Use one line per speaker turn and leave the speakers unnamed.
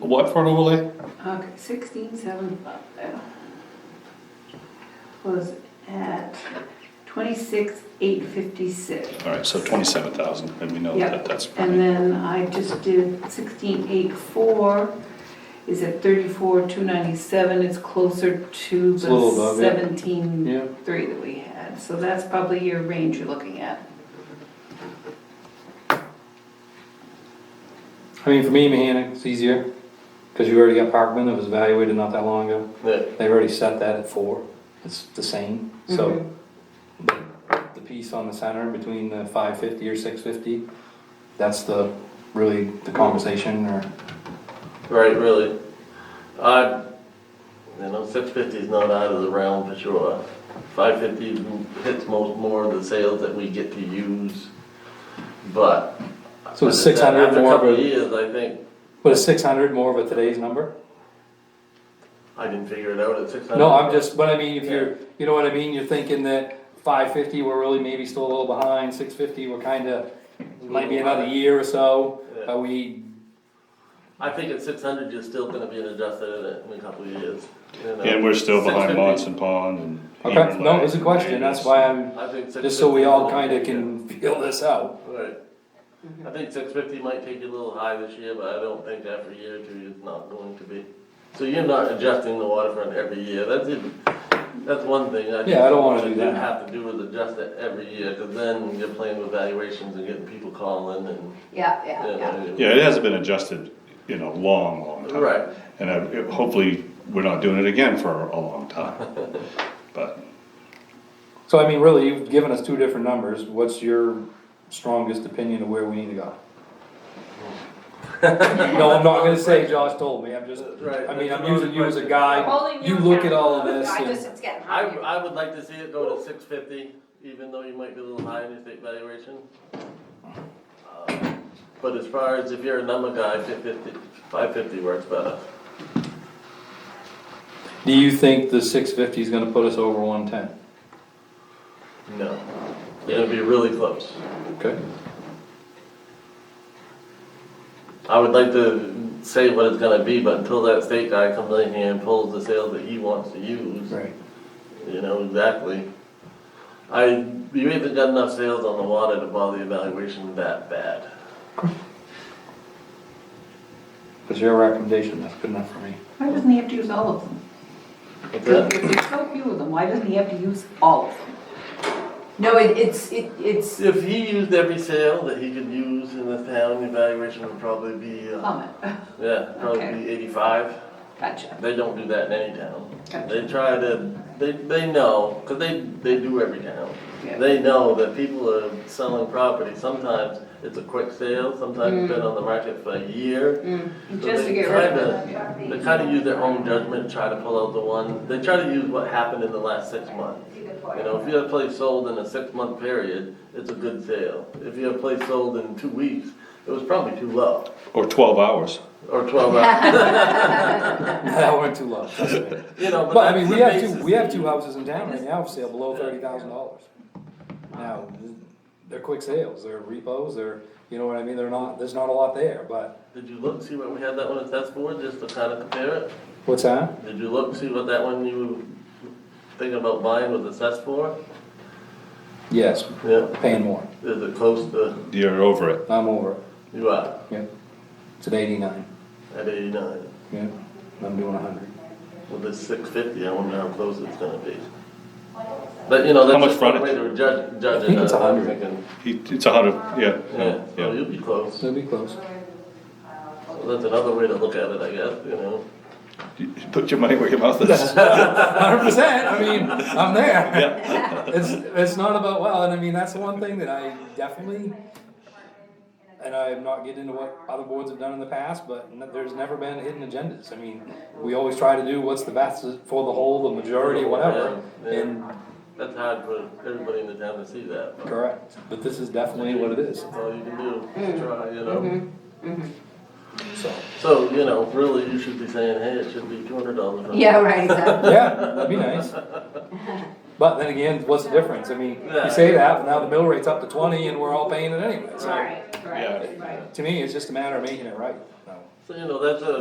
What for an overlay?
Okay, sixteen seven five was at twenty-six eight fifty-six.
All right, so twenty-seven thousand, and we know that
Yep,
that's.
and then I just did sixteen eight four is at thirty-four two ninety-seven, it's closer to
It's a little
the
above, yeah.
seventeen
Yeah,
three that we had, so that's probably your range you're looking at.
I mean, for me, Mahanic, it's easier, because you already got Parkman that was evaluated not that long ago.
But
They've already set that at four, it's the same, so. The piece on the center between the five fifty or six fifty, that's the, really, the conversation or,
Right, really. I, you know, six fifty is not out of the realm for sure. Five fifty hits most more of the sales that we get to use, but.
So it's 600
After a
more,
couple of
but-
years, I think,
but is six hundred more of a today's number?
I didn't figure it out at six hundred.
No, I'm just, but I mean, if you're, you know what I mean, you're thinking that five fifty, we're really maybe still a little behind, six fifty, we're kinda, might be another year or so, but we,
I think at six hundred, you're still gonna be an adjusted in it in a couple of years. you know.
And we're still behind
650.
Monson Pond and.
okay,
Emerald
no, it's a
Lake,
question, that's why I'm,
I think six fifty.
just so we all kinda can feel this out.
Right. I think six fifty might take you a little high this year, but I don't think after a year or two, it's not going to be. So you're not adjusting the waterfront every year, that's even, that's one thing I think.
Yeah, I don't wanna do
You
that.
have to do is adjust it every year, cause then you're playing with valuations and getting people calling and.
Yeah,
you
yeah, yeah.
know,
Yeah, it hasn't been adjusted in a long, long time.
Right.
And I- it- hopefully, we're not doing it again for a long time. But,
So I mean, really, you've given us two different numbers, what's your strongest opinion of where we need to go? No, I'm not gonna say Josh told me, I'm just,
Right.
I mean, I'm using you as a guide, you look at all of this
I just,
and,
it's getting
I,
hard.
I would like to see it go to six fifty, even though you might be a little high in your state valuation. Um, But as far as if you're a number guy, 550 550 works better.
do you think the six fifty is gonna put us over one ten?
No. It'll be really close.
Okay.
I would like to say what it's gonna be, but until that state guy comes in here and pulls the sales that he wants to use,
Right.
you know, exactly. I, you haven't got enough sales on the water to bother the evaluation that bad.
It's your recommendation, that's good enough for me.
Why doesn't he have to use all of them? If there's so few of them, why doesn't he have to use all of them?
No, it, it's, it, it's,
If he used every sale that he could use in the town, the evaluation would probably be, uh,
Plummet,
yeah, probably be eighty-five.
gotcha.
They don't do that in any town.
Gotcha.
They try to, they, they know, because they, they do every town.
Yeah.
They know that people are selling property, sometimes it's a quick sale, sometimes it's been on the market for a year. So
Mm. Just to
they
get rid
try
of
to- They kind of use their own judgment, try to pull out the one, they try to use what happened in the last six months. You know, if you have a place sold in a six-month period, it's a good sale. If you have a place sold in two weeks, it was probably too low,
or twelve hours.
or twelve hours,
That went too low. that's right.
you know, but
But I mean,
that's
we
the
have two,
basis
we have
that
two
you-
houses in town right now for sale below thirty thousand dollars. Now, they're quick sales, they're repos, they're, you know what I mean, they're not, there's not a lot there, but,
Did you look, see what we had that one at test board, just to kind of compare it?
what's that?
Did you look, see what that one you were thinking about buying was assessed for?
Yes,
Yeah,
paying more,
is it close to,
You're over it.
I'm over it,
you are,
yeah. It's at eighty-nine,
at eighty-nine,
yeah, and I'm doing a hundred.
with this six fifty, I wonder how close it's gonna be. But, you know,
How much
that's just one way
frontage?
to judge, judge it.
I think it's
I'm
100.
thinking,
He- It's a hundred, yeah,
Yeah,
yeah,
so
yeah.
you'll be close.
So it'll be close.
Well, That's another way to look at it, I guess, you know.
You Put your money where your mouth is.
Hundred percent, I mean, I'm there. It's, it's not about, well, and I mean, that's the one thing that I definitely, and I'm not getting into what other boards have done in the past, but n- there's never been hidden agendas. I mean, we always try to do what's the best for the whole, the majority, whatever,
Yeah, yeah.
and,
That's hard for everybody in the town to see that.
correct. But this is definitely what it is,
That's all you can do,
Mm-hmm.
is try, you know.
so.
So, you know, really, you should be saying, hey, it should be two hundred dollars.
yeah, right, exactly.
Yeah, that'd be nice. But then again, what's the difference? I mean, you say that, but now the mill rate's up to twenty and we're all paying it anyway, so
Right, right,
Yeah.
right.
to me, it's just a matter of making it right, so.
So, you know, that's a,